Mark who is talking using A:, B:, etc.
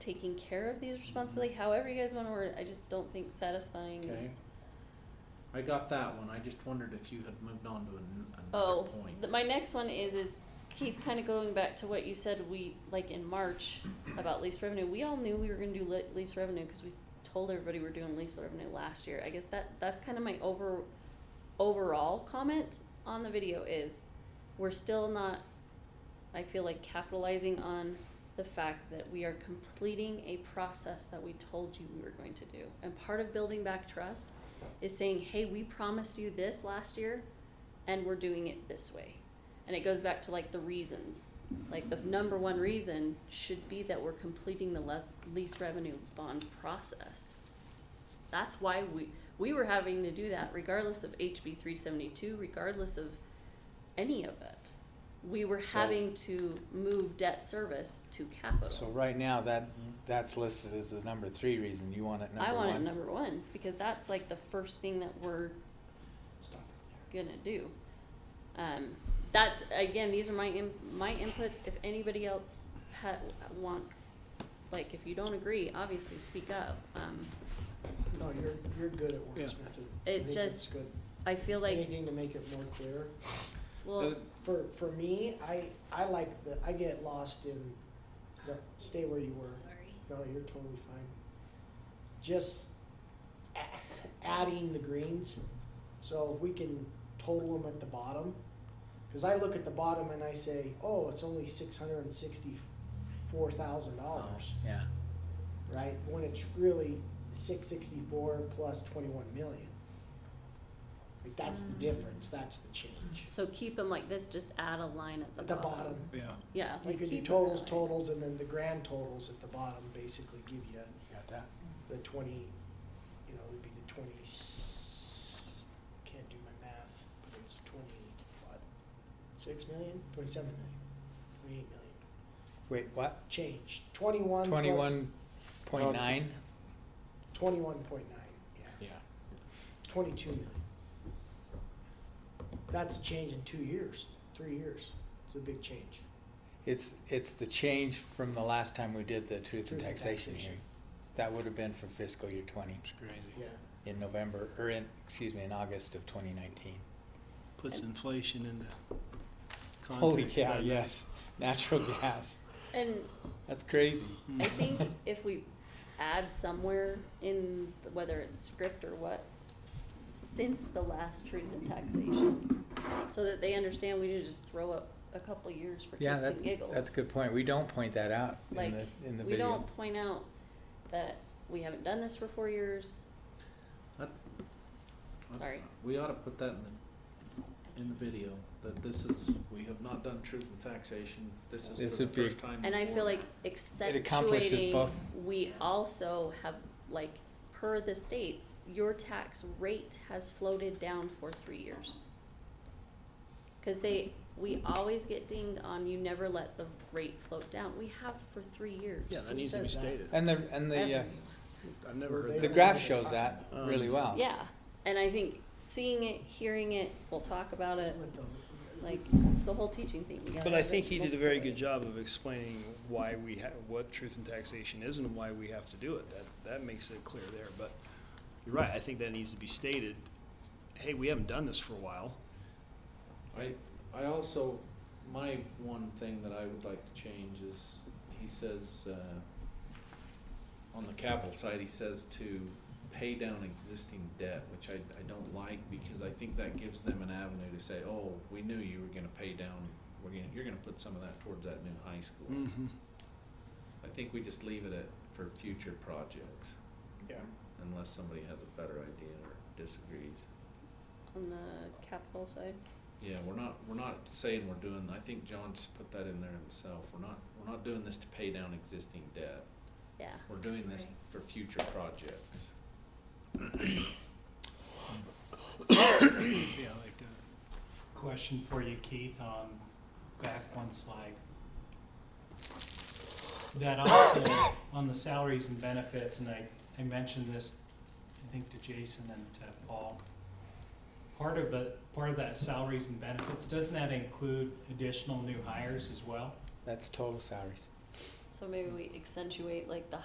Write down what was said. A: taking care of these responsibilities, however you guys wanna word it, I just don't think satisfying
B: Okay.
A: is.
B: I got that one. I just wondered if you had moved on to an, another
A: Oh,
B: point.
A: th- my next one is, is Keith, kinda going back to what you said, we, like in March, about lease revenue, we all knew we were gonna do le- lease revenue, cause we told everybody we're doing lease revenue last year, I guess that, that's kinda my over, overall comment on the video is, we're still not, I feel like capitalizing on the fact that we are completing a process that we told you we were going to do. And part of building back trust is saying, hey, we promised you this last year, and we're doing it this way. And it goes back to like the reasons. Like the number one reason should be that we're completing the le- lease revenue bond process. That's why we, we were having to do that regardless of HB three seventy-two, regardless of any of it. We were
C: So-
A: having to move debt service to capital.
C: So right now, that, that's listed as the number three reason, you want it number
A: I
C: one?
A: want it number one because that's like the first thing that we're gonna do. Um, that's again, these are my in, my inputs. If anybody else ha- wants, like, if you don't agree, obviously speak up. Um,
D: No, you're, you're good at
B: Yeah.
D: wordsmithing.
A: It's
D: I think
A: just,
D: good.
A: I feel like,
D: Anything to make it more clear.
A: well,
D: For, for me, I, I like the, I get lost in, no, stay where you were. No, you're totally fine. Just a- adding the greens, so if we can total them at the bottom. Cause I look at the bottom and I say, oh, it's only six hundred and sixty-four thousand dollars,
C: Oh, Yeah,
D: right? When it's really six sixty-four plus twenty-one million. Like, that's
A: Mm.
D: the difference, that's the change.
A: so keep them like this. Just add a line at the
D: At the
A: bottom.
D: bottom,
B: Yeah.
A: Yeah,
D: you
A: like
D: can do
A: keep 'em that
D: totals,
A: way.
D: totals, and then the grand totals at the bottom basically give you
C: you got that?
D: the twenty, you know, it would be the twenty, can't do my math, but it's twenty, what? Six million, twenty-seven million, twenty-eight million,
C: Wait, what?
D: change, twenty-one plus
C: Twenty-one point nine?
D: twenty-one point nine,
C: Yeah.
D: yeah, twenty-two million. That's a change in two years, three years, it's a big change.
C: It's, it's the change from the last time we did the truth and
D: Truth and
C: taxation
D: taxation.
C: hearing. That would have been for fiscal year twenty,
D: Yeah.
C: in November, or in, excuse me, in August of twenty nineteen.
E: Puts inflation into context.
C: Holy cow,
E: doesn't it?
C: yes, natural gas,
A: And
C: that's crazy.
A: I
E: Mhm.
A: think if we add somewhere in, the- whether it's script or what, s- since the last truth in taxation, so that they understand we didn't just throw up a couple years for
C: Yeah,
A: kicks and
C: that's,
A: giggles.
C: that's a good point, we don't point that out in
A: Like,
C: the, in the
A: We
C: video.
A: don't point out that we haven't done this for four years, Sorry.
B: We ought to put that in the, in the video, that this is, we have not done truth and taxation. This
C: This
B: is for
C: would
B: the
C: be-
B: first time.
A: and I feel
B: before.
A: like
C: accomplishes
A: accentuating,
C: both.
A: we also have, like, per the state, your tax rate has floated down for three years. Cause they, we always get dinged on, you never let the rate float down, we have for three years.
E: Yeah, that
D: Who
E: needs to be
D: says that?
E: stated.
C: And the, and the, uh,
A: Everyone.
E: I've never
C: the
D: They
E: heard
D: don't
E: that.
C: graph
D: know what
C: shows
D: they're
C: that
D: talking
C: really
E: Um,
C: well.
A: Yeah, and I think seeing it, hearing it, we'll talk about it,
D: With the-
A: Uh, like, it's the whole teaching thing. You gotta
E: But I
A: have it
E: think he did a
A: multiple
E: very good
A: ways.
E: job of explaining why we ha what truth and taxation is and why we have to do it. That, that makes it clear there, but you're right, I think that needs to be stated. Hey, we haven't done this for a while.
B: I, I also, my one thing that I would like to change is, he says, uh, on the capital side, he says to pay down existing debt, which I, I don't like, because I think that gives them an avenue to say, oh, we knew you were gonna pay down, we're gonna, you're gonna put some of that towards that new high school. I think we just leave it at, for future projects,
D: Yeah.
B: unless somebody has a better idea or disagrees.
A: On the capital side.
B: Yeah, we're not, we're not saying we're doing, I think John just put that in there himself, we're not, we're not doing this to pay down existing debt.
A: Yeah.
B: We're doing this for future projects.
E: Yeah, I like uh, that.
F: Question for you, Keith, on back one slide. That also, on the salaries and benefits, and I, I mentioned this, I think to Jason and to Paul. Part of the, part of that salaries and benefits, doesn't that include additional new hires as well?
C: That's total salaries.
A: So maybe we accentuate like the